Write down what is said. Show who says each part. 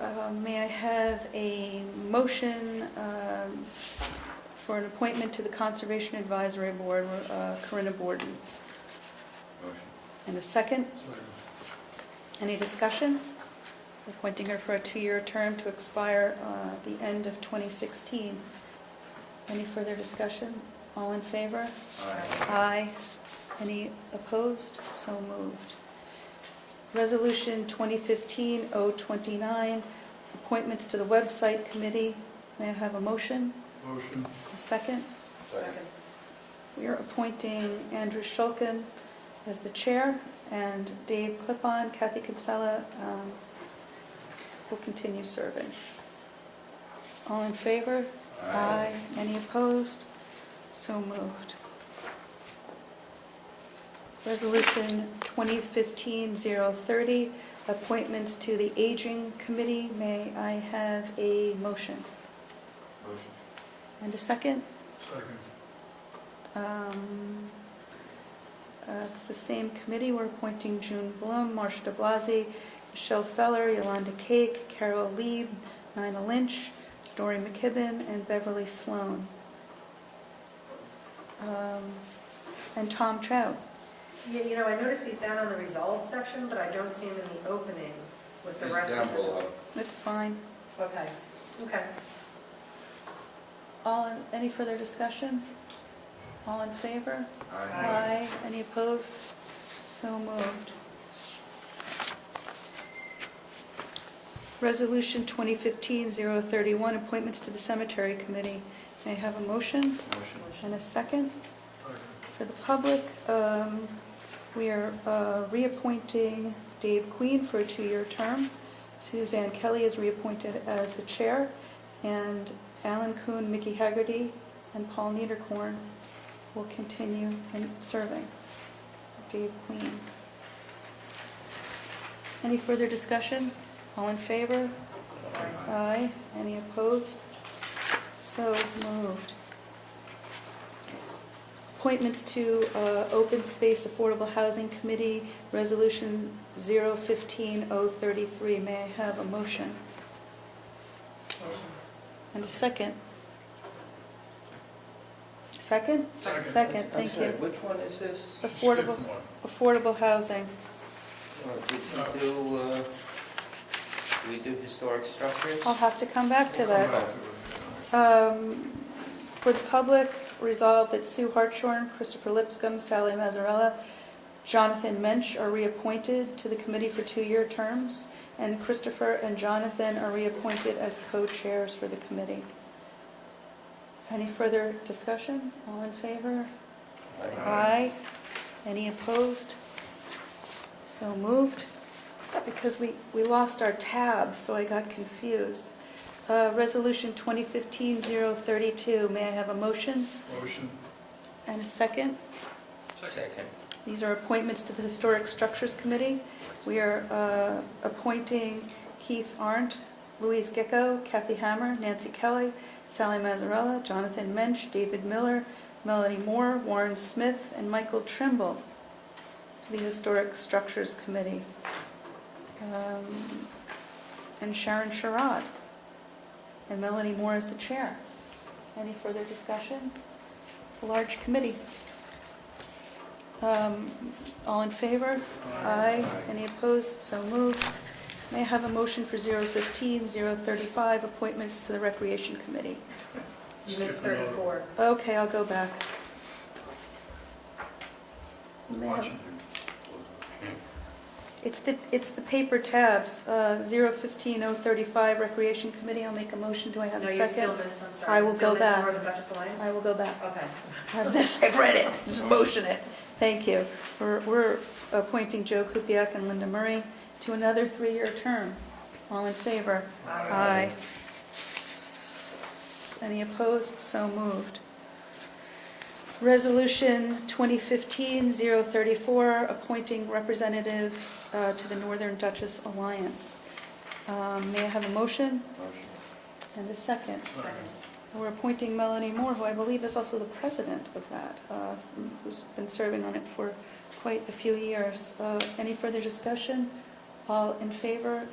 Speaker 1: Uh, May I have a motion um, for an appointment to the Conservation Advisory Board, uh, Corinna Borden?
Speaker 2: Motion.
Speaker 1: And a second? Any discussion? Appointing her for a two-year term to expire uh, the end of 2016. Any further discussion? All in favor?
Speaker 2: Aye.
Speaker 1: Aye. Any opposed? So moved. Resolution 2015-029, appointments to the website committee. May I have a motion?
Speaker 2: Motion.
Speaker 1: A second?
Speaker 2: Second.
Speaker 1: We are appointing Andrew Shulkin as the chair, and Dave Clipon, Kathy Kinsella um, will continue serving. All in favor? Any opposed? So moved. Resolution 2015-030, appointments to the Aging Committee. May I have a motion?
Speaker 2: Motion.
Speaker 1: And a second?
Speaker 2: Second.
Speaker 1: Um, uh, It's the same committee, we're appointing June Blum, Marsha de Blasi, Michelle Feller, Yolanda Cake, Carol Lieb, Nina Lynch, Dory McKibben, and Beverly Sloan. Um, And Tom Trout.
Speaker 3: Yeah, you know, I noticed he's down on the resolve section, but I don't see him in the opening with the
Speaker 2: It's
Speaker 3: rest of
Speaker 2: down
Speaker 3: them.
Speaker 2: below.
Speaker 1: That's fine.
Speaker 3: Okay, okay.
Speaker 1: All, in- any further discussion? All in favor?
Speaker 3: Aye.
Speaker 1: Any opposed? So moved. Resolution 2015-031, appointments to the Cemetery Committee. May I have a motion
Speaker 2: Motion.
Speaker 1: and a second? For the public, um, we are uh, reappointing Dave Queen for a two-year term. Suzanne Kelly is reappointed as the chair, and Alan Kuhn, Mickey Haggerty, and Paul Niederkorn will continue in serving. Dave Queen. Any further discussion? All in favor? Aye. Any opposed? So moved. Appointments to uh, Open Space Affordable Housing Committee, Resolution 015-033. May I have a motion
Speaker 3: Motion.
Speaker 1: and a second? Second?
Speaker 2: Second.
Speaker 1: Second, thank
Speaker 4: I'm sorry,
Speaker 1: you.
Speaker 4: which one is this?
Speaker 1: Affordable, affordable housing.
Speaker 4: Or Did we do, uh, did we do historic structures?
Speaker 1: I'll have to come back to that.
Speaker 2: Aye.
Speaker 1: Um, For the public, resolve that Sue Hartshorn, Christopher Lipscomb, Sally Mazzarella, Jonathan Mensch are reappointed to the committee for two-year terms, and Christopher and Jonathan are reappointed as co-chairs for the committee. Any further discussion? All in favor?
Speaker 4: Aye.
Speaker 1: Aye. Any opposed? So moved. Because we, we lost our tab, so I got confused. Uh, Resolution 2015-032, may I have a motion
Speaker 2: Motion.
Speaker 1: and a second?
Speaker 4: Second.
Speaker 1: These are appointments to the Historic Structures Committee. We are uh, appointing Keith Arndt, Louise Gecko, Kathy Hammer, Nancy Kelly, Sally Mazzarella, Jonathan Mensch, David Miller, Melanie Moore, Warren Smith, and Michael Trimble to the Historic Structures Committee. Um, And Sharon Sherrod. And Melanie Moore is the chair. Any further discussion? A large committee. Um, All in favor?
Speaker 2: Uh,
Speaker 1: Aye. Any opposed? So moved. May I have a motion for 015, 035, appointments to the Recreation Committee?
Speaker 3: You missed
Speaker 2: Skip another.
Speaker 3: 34.
Speaker 1: Okay, I'll go back.
Speaker 2: We're
Speaker 1: Ma'am.
Speaker 2: watching
Speaker 1: It's the, it's the paper tabs, uh, 015, 035, Recreation Committee. I'll make a motion. Do I have
Speaker 3: No,
Speaker 1: a
Speaker 3: you
Speaker 1: second?
Speaker 3: still missed, I'm sorry.
Speaker 1: I
Speaker 3: You
Speaker 1: will
Speaker 3: still
Speaker 1: go
Speaker 3: missed
Speaker 1: back.
Speaker 3: Northern Duchess Alliance?
Speaker 1: I will go back.
Speaker 3: Okay.
Speaker 1: have this, I've read it, just motion it. Thank you. We're- We're appointing Joe Kupiec and Linda Murray to another three-year term. All in favor?
Speaker 2: Aye.
Speaker 1: Any opposed? So moved. Resolution 2015-034, appointing representative uh, to the Northern Duchess Alliance. Um, May I have a motion
Speaker 2: it. Motion.
Speaker 1: and a second?
Speaker 3: Second.
Speaker 1: We're appointing Melanie Moore, who I believe is also the president of that, uh, who's been serving on it for quite a few years. Uh, Any further discussion? All in favor?